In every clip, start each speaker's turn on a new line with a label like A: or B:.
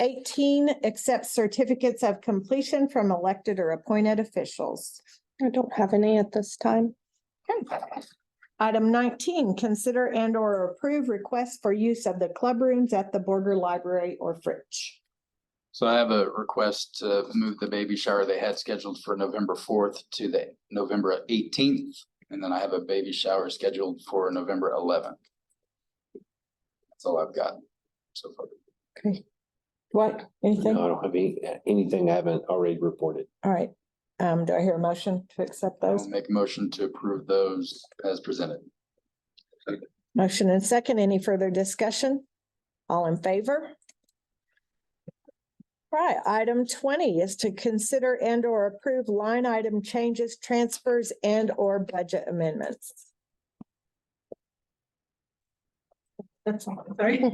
A: Eighteen, accept certificates of completion from elected or appointed officials.
B: I don't have any at this time.
A: Okay. Item nineteen, consider and or approve requests for use of the club rooms at the border library or fridge.
C: So I have a request to move the baby shower they had scheduled for November fourth to the November eighteenth. And then I have a baby shower scheduled for November eleventh. That's all I've got so far.
A: What,
D: No,
A: anything?
D: I don't have any, anything I haven't already reported.
A: All right, um, do I hear a motion to accept
C: I'll
A: those?
C: make a motion to approve those as presented.
A: Motion and second, any further discussion? All in favor? Right, item twenty is to consider and or approve line item changes, transfers and or budget amendments.
E: That's all, sorry.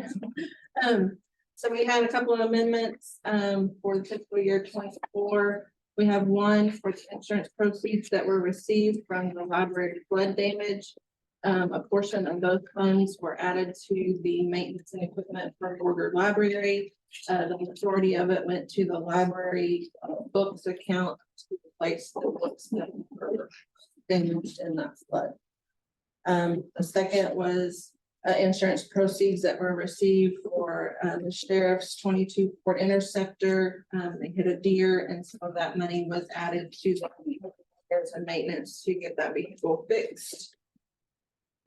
E: Um, so we had a couple of amendments, um, for the fiscal year twenty-four. We have one for the insurance proceeds that were received from the library flood damage. Um, a portion of those funds were added to the maintenance and equipment for Border Library. Uh, the majority of it went to the library uh, books account to replace the books that were damaged in that flood. Um, the second was uh, insurance proceeds that were received for, uh, the sheriff's twenty-two Ford Interceptor. Um, they hit a deer and some of that money was added to the repairs and maintenance to get that vehicle fixed.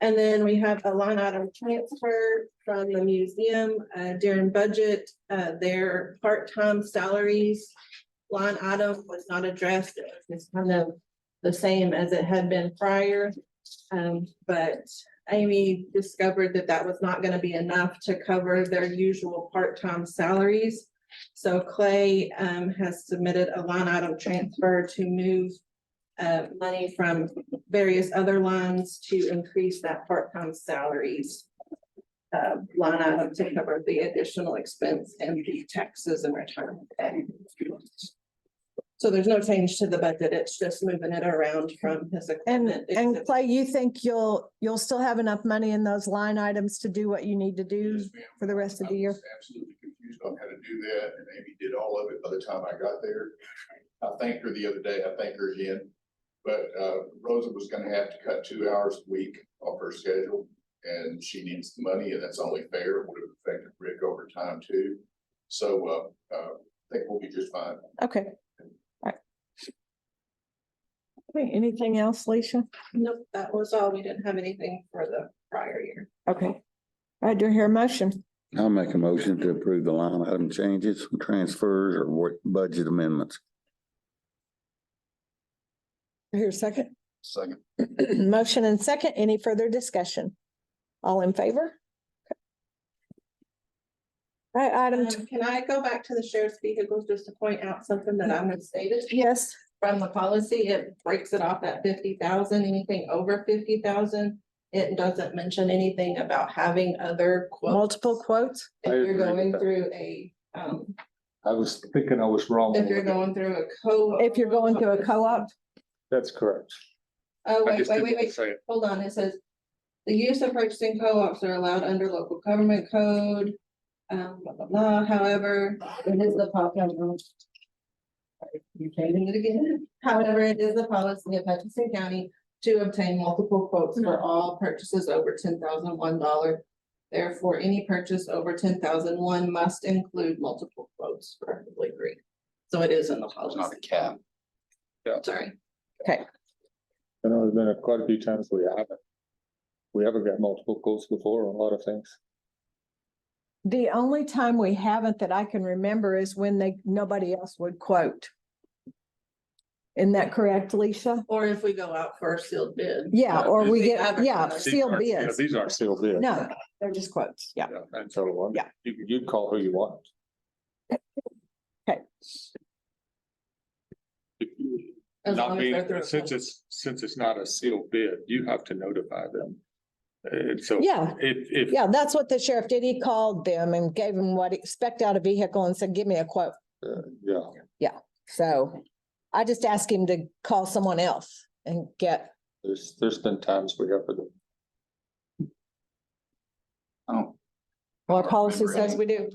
E: And then we have a line item transfer from the museum, uh, during budget, uh, their part-time salaries. Line item was not addressed. It was just kind of the same as it had been prior. Um, but Amy discovered that that was not gonna be enough to cover their usual part-time salaries. So Clay, um, has submitted a line item transfer to move uh, money from various other lines to increase that part-time salaries uh, line item to cover the additional expense and the taxes and retirement. pay. So there's no change to the budget. It's just moving it around from his.
A: And,
E: equipment
A: and
E: expense.
A: Clay, you think you'll, you'll still have enough money in those line items to do what you need to do
F: Yes, ma'am.
A: for the rest of the year?
F: I was Absolutely confused on how to do that, and Amy did all of it by the time I got there. I thanked her the other day, I thank her again, but, uh, Rosa was gonna have to cut two hours a week off her schedule. And she needs the money, and that's only fair, It would have affected Rick over time too, so, uh, uh, I think we'll be just fine.
A: Okay. All right. Okay, anything else, Leisha?
E: Nope, that was all. We didn't have anything for the prior year.
A: Okay. I do hear a motion.
G: I'll make a motion to approve the line item changes, transfers, or what- budget amendments.
A: I hear a second.
C: Second,
A: Motion and second. Any further discussion? All in favor? All Right, item, tw-
E: Um, Can I go back to the sheriff's vehicles just to point out something that I misstated?
A: yes,
E: From the policy, it breaks it off at fifty thousand, anything over fifty thousand. It doesn't mention anything about having other quotes.
A: multiple quotes.
E: If
D: I
E: you're
D: agree with
E: going
D: that.
E: through a, um,
D: I was thinking I was wrong.
E: if you're going through a co.
A: If you're going to a co-op,
D: That's correct.
E: Oh,
H: I
E: wait,
H: just
E: wait,
H: didn't
E: wait, wait.
H: say it.
E: hold on, it says. The use of purchasing co-ops are allowed under local government code. Um, blah, blah, blah, however, it is the um, pop. You're changing it again. However, it is the policy of Hutchinson County to obtain multiple quotes for all purchases over ten thousand one dollar. Therefore, any purchase over ten thousand one must include multiple quotes, preferably three. So it is in the
C: it's not
E: policy,
C: a cap.
E: sorry.
I: I know there's been a- quite a few times we haven't. We haven't got multiple quotes before on a lot of things.
A: the only time we haven't that I can remember is when they, nobody else would quote. Isn't that correct, Leisha?
E: Or if we go out for a sealed bid.
A: Yeah, or we
E: They
A: get, yeah,
E: advertise.
H: These
A: sealed
H: aren't- yeah,
A: bids.
H: These aren't
I: Still there.
A: No, they're just quotes. Yeah.
I: And so on.
A: Yeah.
I: You, you call who you want.
A: Okay.
E: As long
H: Not
E: as they're through
H: being,
E: a
H: since
E: public-
H: it's, since it's not a sealed bid, you have to notify them. And so.
A: Yeah.
H: If, if.
A: Yeah, that's what the sheriff did. He called them and gave them what, he- spec'd out a vehicle and said, give me a quote.
I: Uh, yeah.
A: So I just asked him to call someone else and get,
I: There's, there's been times we have to
C: I don't
A: well, our policy says we do.